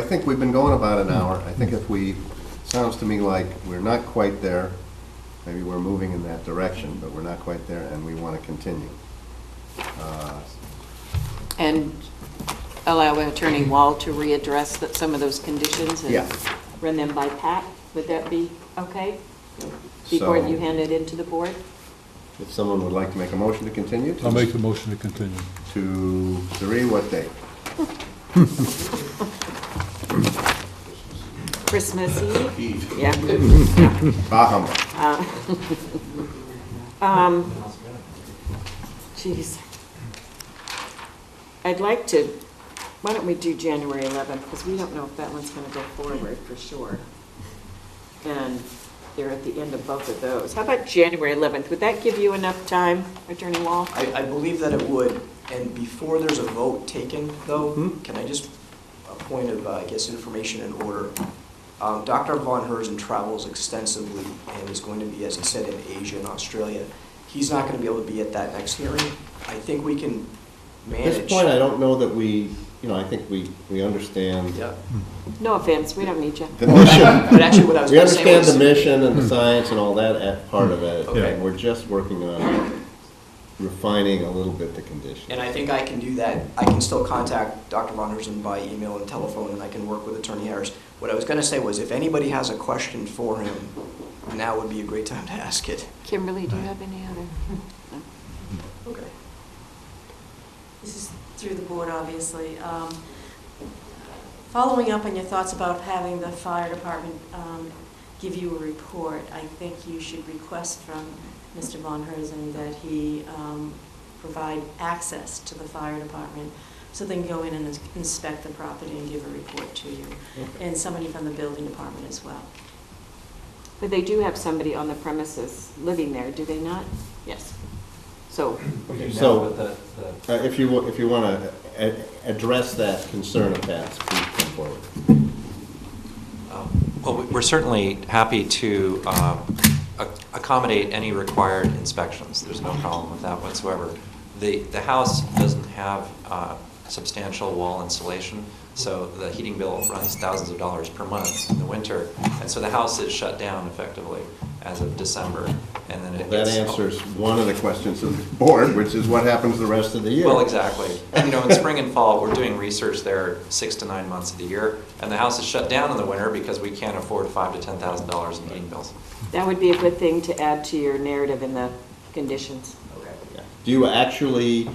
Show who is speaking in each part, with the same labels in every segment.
Speaker 1: I think we've been going about an hour. I think if we, sounds to me like we're not quite there, maybe we're moving in that direction, but we're not quite there, and we want to continue. Uh,
Speaker 2: And allow Attorney Wall to readdress that, some of those conditions
Speaker 1: Yeah.
Speaker 2: and run them by Pat? Would that be okay? Before
Speaker 1: So-
Speaker 2: you hand it in to the board?
Speaker 1: If someone would like to make a motion to continue? to-
Speaker 3: I'll make the motion to continue.
Speaker 1: To three, what date?
Speaker 2: Christmas Eve?
Speaker 4: Eve.
Speaker 2: Yeah.
Speaker 1: Bah humbug.
Speaker 2: Um, Jeez. I'd like to, why don't we do January 11th, because we don't know if that one's going to go forward for sure. And they're at the end of both of those. How about January 11th? Would that give you enough time, Attorney Wall?
Speaker 4: I, I believe that it would, and before there's a vote taken, though, can I just, a point of, uh, I guess, information and order. Um, Dr. Von Herzen travels extensively and is going to be, as he said, in Asia and Australia. He's not going to be able to be at that next hearing. I think we can
Speaker 1: At
Speaker 4: manage.
Speaker 1: this point, I don't know that we, you know, I think we, we understand
Speaker 4: Yeah,
Speaker 2: No offense, we don't need you.
Speaker 1: the mission. Hmm.
Speaker 4: but actually what I was
Speaker 1: We
Speaker 4: going to say
Speaker 1: understand
Speaker 4: was.
Speaker 1: the mission and the science and all that at- part of it.
Speaker 4: Okay.
Speaker 1: And we're just working on refining a little bit the condition.
Speaker 4: And I think I can do that. I can still contact Dr. Von Herzen by email and telephone, and I can work with Attorney Harris. What I was gonna say was, if anybody has a question for him, now would be a great time to ask it.
Speaker 2: Kimberly, do you have any other?
Speaker 5: Okay. This is through the board, obviously. Um, Following up on your thoughts about having the fire department um, give you a report, I think you should request from Mr. Von Herzen that he um, provide access to the fire department so they can go in and ins- inspect the property and give a report to you, and somebody from the building department as well.
Speaker 2: But they do have somebody on the premises living there, do they not? Yes. So,
Speaker 6: Okay,
Speaker 1: So-
Speaker 6: now, but the, the
Speaker 1: Uh, If you, wa- if you want to address that concern of Pat's, please come forward.
Speaker 6: Um, Well, we- we're certainly happy to um, ac- accommodate any required inspections. There's no problem with that whatsoever. The, the house doesn't have uh, substantial wall insulation, so the heating bill runs thousands of dollars per month in the winter. And so the house is shut down effectively as of December, and then it
Speaker 1: That
Speaker 6: gets.
Speaker 1: answers one of the questions of the board, which is what happens the rest of the year.
Speaker 6: Well, exactly. And, You know, in spring and fall, we're doing research there six to nine months of the year, and the house is shut down in the winter because we can't afford five to ten thousand dollars in heating bills.
Speaker 2: that would be a good thing to add to your narrative in the conditions.
Speaker 4: Okay.
Speaker 1: Yeah. Do you actually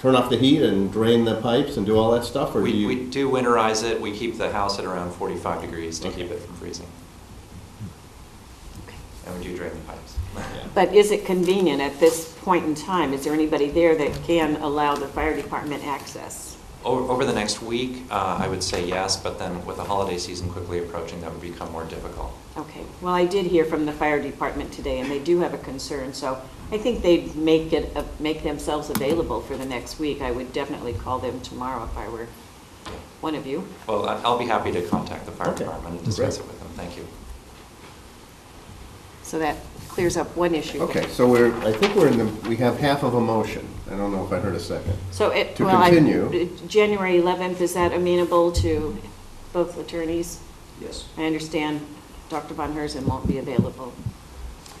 Speaker 1: turn off the heat and drain the pipes and do all that stuff, or do
Speaker 6: We,
Speaker 1: you?
Speaker 6: we do winterize it, we keep the house at around forty-five degrees to keep
Speaker 1: Okay.
Speaker 6: it from freezing, and we do drain the pipes.
Speaker 2: But is it convenient at this point in time? Is there anybody there that can allow the fire department access?
Speaker 6: Over, over the next week, uh, I would say yes, but then with the holiday season quickly approaching, that would become more difficult.
Speaker 2: Okay, well, I did hear from the fire department today, and they do have a concern, so I think they'd make it, uh, make themselves available for the next week. I would definitely call them tomorrow if I were one of you.
Speaker 6: Well, I- I'll be happy to contact the fire
Speaker 1: Okay.
Speaker 6: department and discuss it
Speaker 1: Great.
Speaker 6: with them, thank you.
Speaker 2: So that clears up one issue.
Speaker 1: Okay, so we're, I think we're in the, we have half of a motion. I don't know if I heard a second.
Speaker 2: So it,
Speaker 1: To
Speaker 2: well, I- uh,
Speaker 1: continue.
Speaker 2: January 11th, is that amenable to both attorneys?
Speaker 4: Yes.
Speaker 2: I understand Dr. Von Herzen won't be available.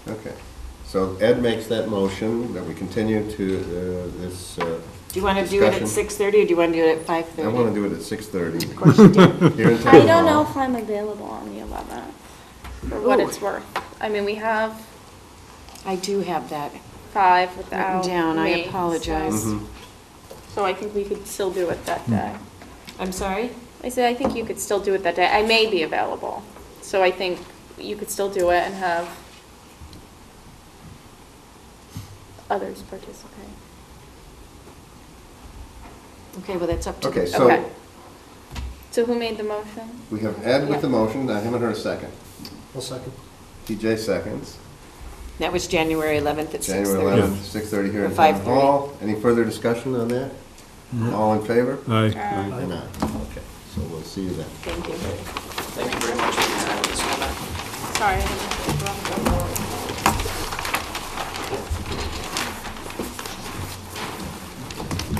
Speaker 1: Okay. So Ed makes that motion that we continue to uh, this, uh,
Speaker 2: Do you want to do it at
Speaker 1: Discussion.
Speaker 2: 6:30, or do you want to do it at 5:30?
Speaker 1: I want to do it at 6:30.
Speaker 2: Of course you do.
Speaker 1: Here in
Speaker 7: I
Speaker 1: Town
Speaker 7: don't know
Speaker 1: Hall.
Speaker 7: if I'm available on the 11th, for what it's
Speaker 2: Ooh.
Speaker 7: worth. I mean, we have
Speaker 2: I do have that
Speaker 7: five
Speaker 2: written
Speaker 7: without me.
Speaker 2: down, I
Speaker 7: so-
Speaker 2: apologize. Mm-hmm. Hmm.
Speaker 1: Mhm.
Speaker 7: So I think we could still do it that day.
Speaker 2: I'm sorry?
Speaker 7: I said, I think you could still do it that day. I may be available, so I think you could still do it and have others participate.
Speaker 2: Okay, well, that's up to
Speaker 1: Okay,
Speaker 2: you.
Speaker 7: Okay.
Speaker 1: so
Speaker 7: So who made the motion?
Speaker 1: we have Ed with the motion, I haven't heard a second.
Speaker 4: One second.
Speaker 1: TJ seconds.
Speaker 2: That was January 11th at 6:30.
Speaker 1: January 11th, 6:30 here
Speaker 2: Or
Speaker 1: in Town
Speaker 2: 5:30.
Speaker 1: Hall. Any further discussion on that? All in favor?
Speaker 3: Aye.
Speaker 1: Or not? Okay, so we'll see you then.
Speaker 2: Thank you.
Speaker 4: Thank you very much for your time this morning.
Speaker 7: Sorry. I didn't-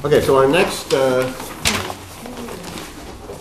Speaker 1: Okay, so our next uh,